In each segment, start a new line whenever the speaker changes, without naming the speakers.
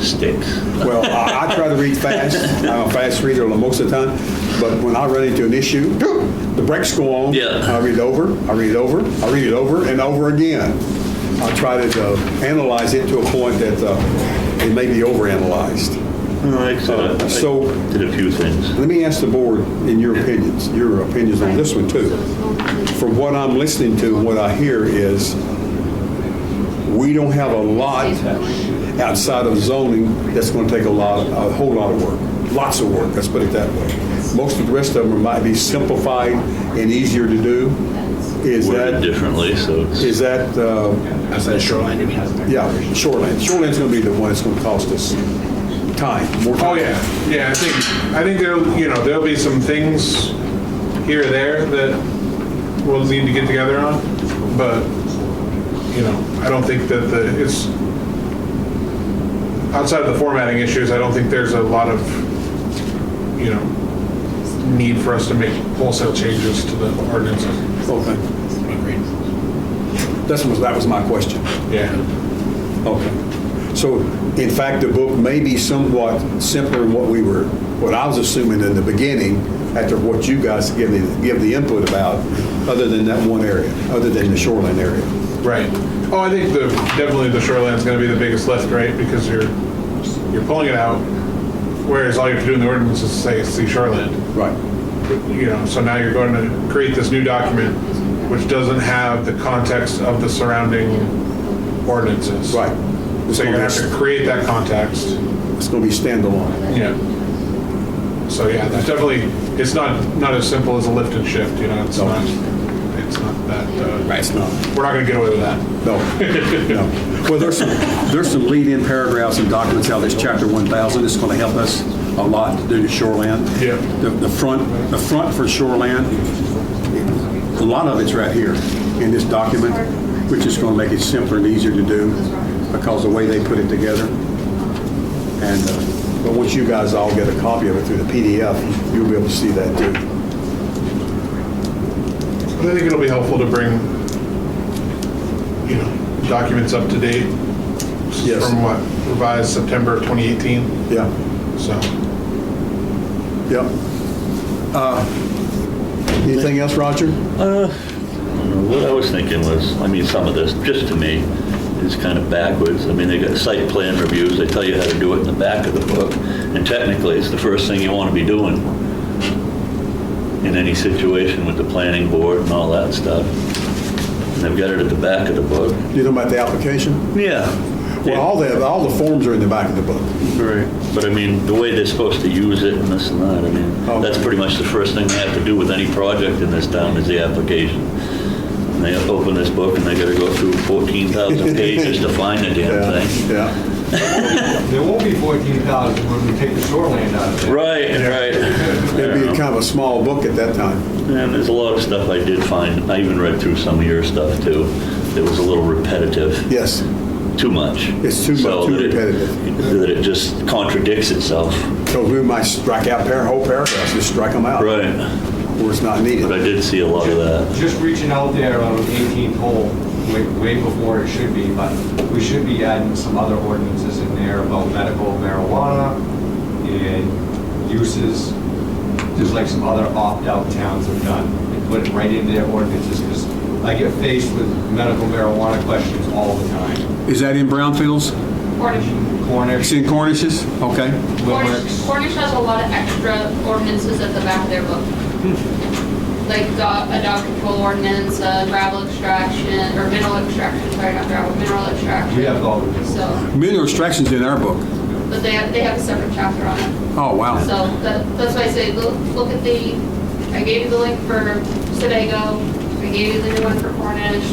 sticks.
Well, I, I try to read fast. I'm a fast reader most of the time, but when I run into an issue, the brakes go on.
Yeah.
I read it over, I read it over, I read it over and over again. I try to uh, analyze it to a point that uh, it may be overanalyzed.
All right, so I-
So-
I did a few things.
Let me ask the board in your opinions, your opinions on this one too. From what I'm listening to and what I hear is we don't have a lot outside of zoning that's going to take a lot, a whole lot of work, lots of work, let's put it that way. Most of the rest of them might be simplified and easier to do. Is
Worded
that,
differently, so it's-
is that, uh,
Outside of shoreline, it has.
yeah, shoreline. Shoreland's going to be the one that's going to cost us time, more time.
Oh, yeah, yeah, I think, I think there'll, you know, there'll be some things here or there that we'll need to get together on, but, you know, I don't think that the, it's, outside of the formatting issues, I don't think there's a lot of, you know, need for us to make wholesale changes to the ordinances.
Okay. Oh, That's was, that was my question.
Yeah,
Okay. So in fact, the book may be somewhat simpler than what we were, what I was assuming in the beginning, after what you guys give the, give the input about, other than that one area, other than the shoreline area.
right. Oh, I think the, definitely the shoreline's gonna be the biggest lift, right, because you're, you're pulling it out, whereas all you have to do in the ordinance is say, see shoreline.
Right.
you know, so now you're going to create this new document which doesn't have the context of the surrounding ordinances.
Right.
So you're gonna have to create that context.
It's going to be standalone.
Yeah. So yeah, that's definitely, it's not, not as simple as a lift and shift, you know, it's
No.
not, it's not that, uh,
It's not.
we're not gonna get away with that.
No, no. Well, there's some, there's some lead-in paragraphs and documents out of this chapter 1,000. It's going to help us a lot to do the shoreline.
Yeah.
The, the front, the front for shoreline, a lot of it's right here in this document, which is going to make it simpler and easier to do because the way they put it together. And, uh, but once you guys all get a copy of it through the PDF, you'll be able to see that too.
But I think it'll be helpful to bring, you know, documents up to date
Yes.
from what revised September of 2018,
Yeah.
so.
Yep. Uh, Anything else, Roger?
What I was thinking was, I mean, some of this, just to me, is kind of backwards. I mean, they got site plan reviews, they tell you how to do it in the back of the book, and technically, it's the first thing you want to be doing in any situation with the planning board and all that stuff. And they've got it at the back of the book.
You know about the application?
Yeah.
Well, all the, all the forms are in the back of the book.
Right. But I mean, the way they're supposed to use it and this and that, I
Oh.
mean, that's pretty much the first thing they have to do with any project in this town is the application. And they open this book and they gotta go through 14,000 pages to find the damn thing.
Yeah.
There won't be 14,000 when we take the shoreline out of it.
Right, right.
It'd be kind of a small book at that time.
And there's a lot of stuff I did find. I even read through some of your stuff too. It was a little repetitive.
Yes.
Too much.
It's too much,
So
too
that it-
repetitive.
That it just contradicts itself.
So we might strike out par- whole paragraphs, just strike them out.
Right.
Where it's not
But I
needed.
did see a lot of that.
Just reaching out there on 18th hole, way, way before it should be, but we should be adding some other ordinances in there about medical marijuana and uses, just like some other opt-out towns have done, and put it right into their ordinances, because I get faced with medical marijuana questions all the time.
Is that in brownfields?
Cornish.
Cornish,
It's in Cornishes? Okay.
Cornish,
Limericks.
Cornish has a lot of extra ordinances at the back of their book. Like dog, a dog control ordinance, uh, gravel extraction, or mineral extraction, sorry, not gravel, mineral extraction.
we have all of this.
So,
Mineral extraction's in our book.
but they have, they have a separate chapter on it.
Oh, wow.
So that, that's why I say, look, look at the, I gave you the link for Sedago, I gave you the new one for Cornish.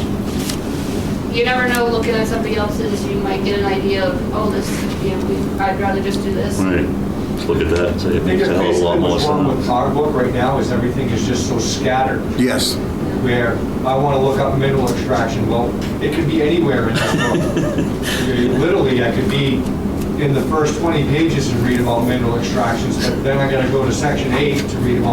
You never know, looking at somebody else's, you might get an idea of, oh, this, you know, we- I'd rather just do this.
Right. Let's look at that and say it
I think
makes a
that's
hell of a lot
basically
more
what's wrong
sense.
with our book right now, is everything is just so scattered.
Yes.
where I want to look up mineral extraction, well, it could be anywhere in this book. Literally, I could be in the first 20 pages and read about mineral extractions, but then I got to go to section eight to read about